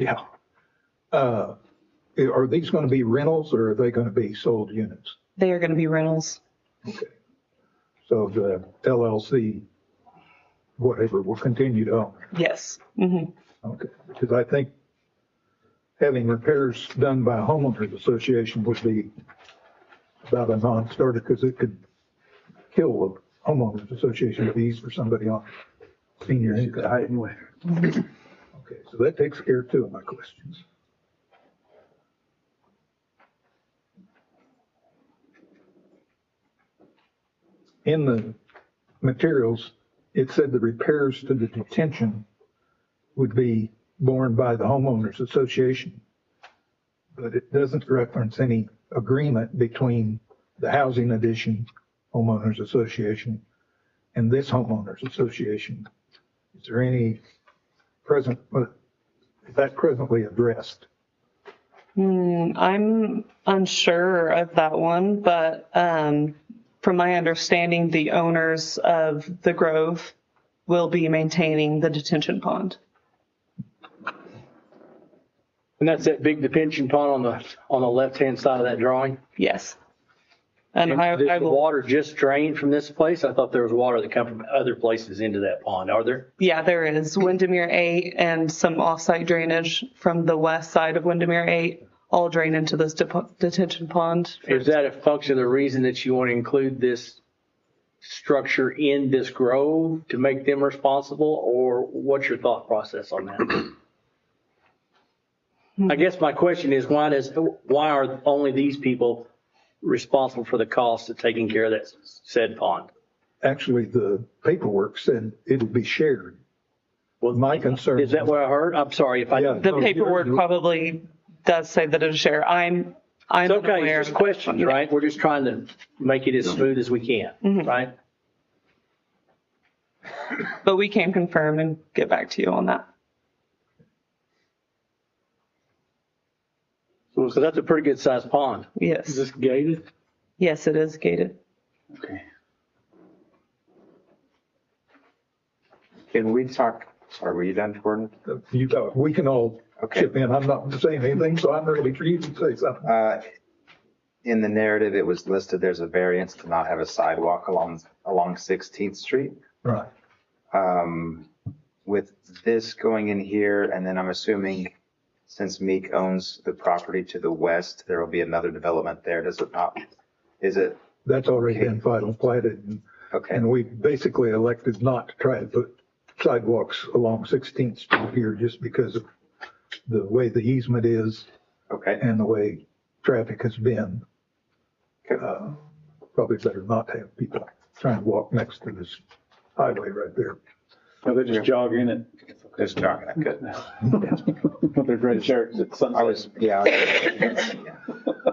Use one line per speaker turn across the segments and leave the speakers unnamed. Yeah. Uh, Are these going to be rentals or are they going to be sold units?
They are going to be rentals.
So the LLC, whatever, will continue to own.
Yes. Mhm.
Okay, because I think having repairs done by a homeowners association would be about a non-starter because it could kill the homeowners association fees for somebody on senior income.
Anyway,
Okay, so that takes care of two of my questions. In the materials, it said the repairs to the detention would be borne by the homeowners association. But it doesn't reference any agreement between the housing addition homeowners association and this homeowners association. Is there any present, is that presently addressed?
Mm, I'm unsure of that one, but um, from my understanding, the owners of the Grove will be maintaining the detention pond.
and that's that big detention pond on the, on the left-hand side of that drawing.
Yes. And I,
Does
I
the
will,
water just drain from this place? I thought there was water that come from other places into that pond. Are there?
yeah, there is Windermere 8 and some offsite drainage from the west side of Windermere 8 all drain into this dep- detention pond.
Is that a function of the reason that you want to include this structure in this grove to make them responsible? Or what's your thought process on that? I guess my question is why does, why are only these people responsible for the cost of taking care of that said pond?
Actually, the paperwork said it'll be shared.
Well,
My concern.
Is that what I heard? I'm sorry if I.
Yeah.
The
Oh, here-
paperwork probably does say that it's shared. I'm, I'm
It's okay,
unaware.
it's just questions, right? We're just trying to make it as smooth as we can, right?
But we can confirm and get back to you on that.
So that's a pretty good sized pond.
Yes.
gated?
Yes, it is gated.
Okay. Can we talk, are we done, Gordon?
You, go. we can all
Okay.
chip in. I'm not saying anything, so I'm ready for you to say something.
Uh, In the narrative, it was listed, there's a variance to not have a sidewalk along, along 16th Street.
Right.
Um, With this going in here, and then I'm assuming since Meek owns the property to the west, there will be another development there, does it not? Is it,
That's already been final platted and,
okay,
and we basically elected not to try to put sidewalks along 16th Street here just because of the way the easement is
okay,
and the way traffic has been.
Okay.
Uh, Probably better not to have people trying to walk next to this highway right there.
No, they just jog in it.
just jogging, it. good.
With their gray shirts at
I
sunset.
was, yeah. I was- yeah.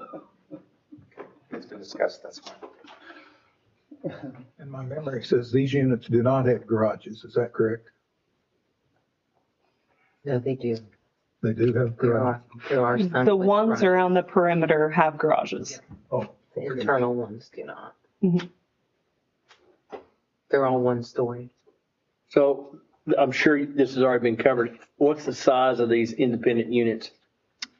It's been discussed, that's fine.
And my memory says these units do not have garages, is that correct?
No, they do.
They do have
There
garages.
are, there are some.
The
with
ones
front-
around the perimeter have garages.
Oh,
The internal ones do not.
Mhm.
They're all one story.
So I'm sure this has already been covered. What's the size of these independent units?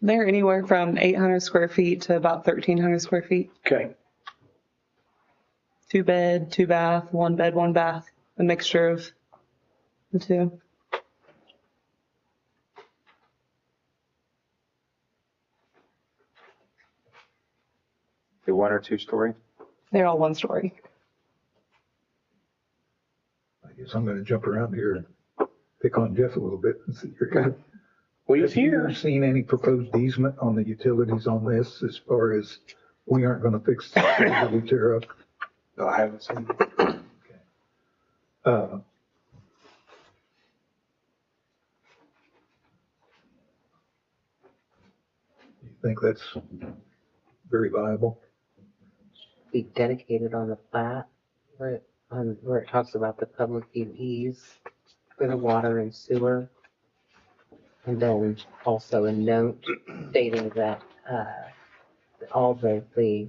They're anywhere from 800 square feet to about 1,300 square feet.
Okay,
Two bed, two bath, one bed, one bath, a mixture of the two.
The one or two story?
They're all one story.
I guess I'm gonna jump around here and pick on Jeff a little bit and see.
well, he's
Have you
here.
seen any proposed easement on the utilities on this as far as we aren't gonna fix the that we tear up?
No, I haven't seen.
Uh, You think that's very viable?
Be dedicated on the plat where, it- on, where it talks about the public UEs for the water and sewer. And then also a note stating that, uh, all the, the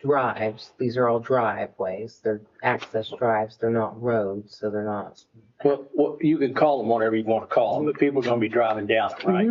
drives, these are all driveways, they're access drives, they're not roads, so they're not
Well, well, you could call them whatever you want to call them, but people are going to be driving down it, right?